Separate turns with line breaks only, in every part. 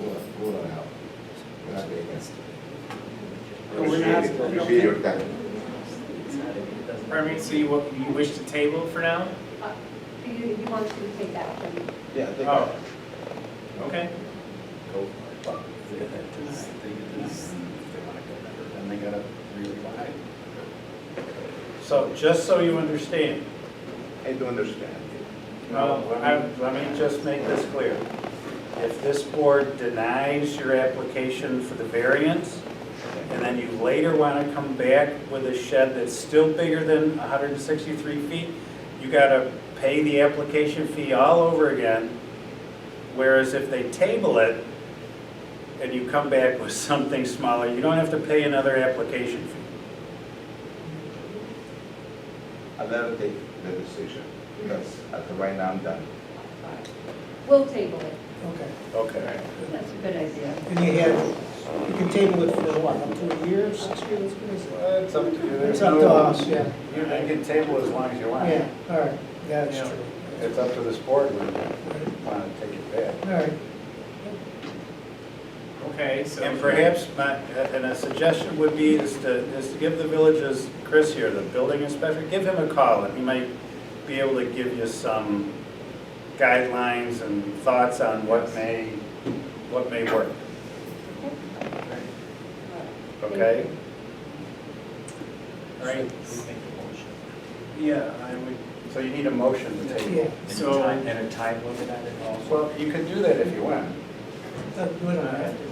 Una, una, una de ellas.
But we're not-
Appreciate it, appreciate your time.
I mean, so you, wa- you wish to table for now?
Uh, Do you, you want to take that from?
Yeah, they got
Oh,
it.
okay.
They get that dis- they get this, if they wanna go better, then they gotta reapply.
So, just so you understand,
I do understand.
uh, let me, let me just make this clear. If this board denies your application for the variance, and then you later want to come back with a shed that's still bigger than 163 feet, you got to pay the application fee all over again. Whereas if they table it and you come back with something smaller, you don't have to pay another application fee.
I'll never take the decision, because at the right now I'm done.
uh, We'll table it.
Okay,
Okay.
That's a good idea.
and you have, you can table it for what, up to a year, six years, what is it?
It's up to you.
It's up to us, yeah,
You you can table as long as you want.
yeah, all right, yeah, that's
Yeah.
true.
It's up to this board when you want to take it back.
All right,
Okay, so.
And perhaps, my- and a suggestion would be is to, is to give the villages, Chris here, the building inspector, give him a call, and he might be able to give you some guidelines and thoughts on what may, what may work, okay?
All right,
Yeah, I would. So you need a motion to
yeah,
table.
So-
And a time limit on it also?
Well, you could do that if you want.
Uh, we don't have to.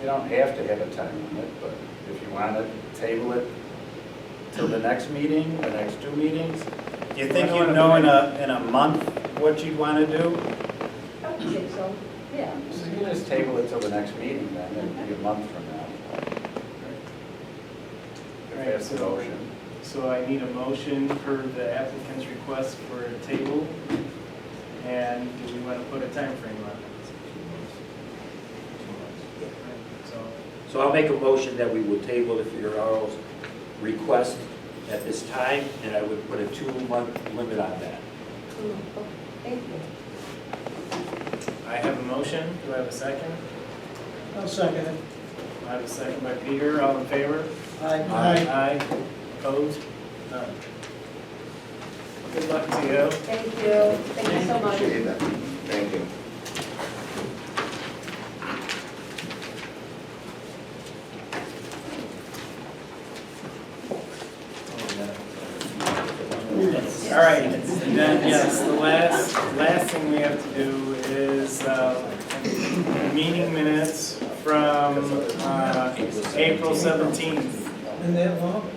You don't have to have a time limit, but if you want to table it till the next meeting, the next two meetings. Do you think you know in a, in a month what you'd want to do?
I would say so, yeah.
So you just table it till the next meeting then, it'd be a month from now. If that's the motion.
so I need a motion for the applicant's request for a table. And do we want to put a time frame on it? So,
So I'll make a motion that we will table the Fioraro's request at this time, and I would put a two-month limit on that.
Thank you.
I have a motion, do I have a second?
I'll second it.
I have a second by Peter, all in favor?
Aye.
Aye, opposed, none. Good luck to you.
Thank you, thank you so much.
Appreciate that, thank you.
All right, and then, yes, the last, last thing we have to do is, uh, meeting minutes from, uh, April seventeenth.
And that long?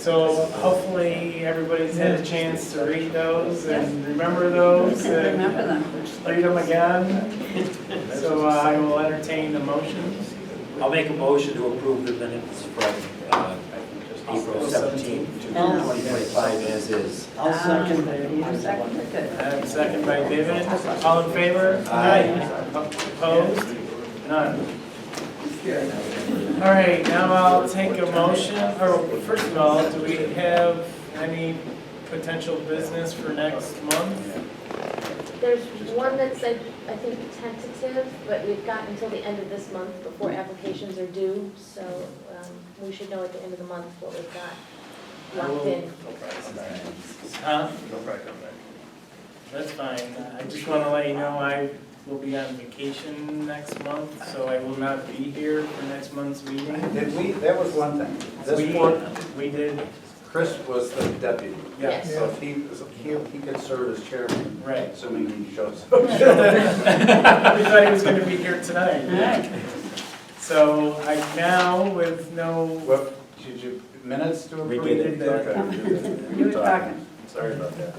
So hopefully everybody's had a chance to read those and remember those and. Remember them. Read them again. So uh, I will entertain the motion.
I'll make a motion to approve the minutes from uh, April 17 to 2025 as is.
I'll
Um,
second it.
I have a Second by David, all in favor? Aye. Opposed? None. All right, now I'll take a motion, or first of all, do we have any potential business for next month?
There's one that said, I think tentative, but we've got until the end of this month before applications are due, so um, we should know at the end of the month what we've got locked in.
Huh? That's fine, I just want to let you know I will be on vacation next month, so I will not be here for next month's meeting.
Did we, that was one thing. This
We,
board,
we did,
Chris was the deputy.
yes,
So if he, so he, he could serve as chairman,
right.
assuming he shows up.
We thought he was gonna be here tonight. So I now, with no,
What, did you, minutes to
We
approve?
did
that.
Okay, we did that.
You were talking.
Sorry about that.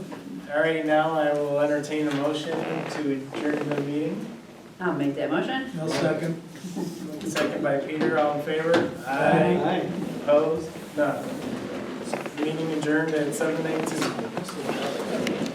all right, now I will entertain a motion to adjourn the meeting.
I'll make that motion.
I'll second.
Second by Peter, all in favor? Aye. Opposed? None. Meeting adjourned at seven eighteen.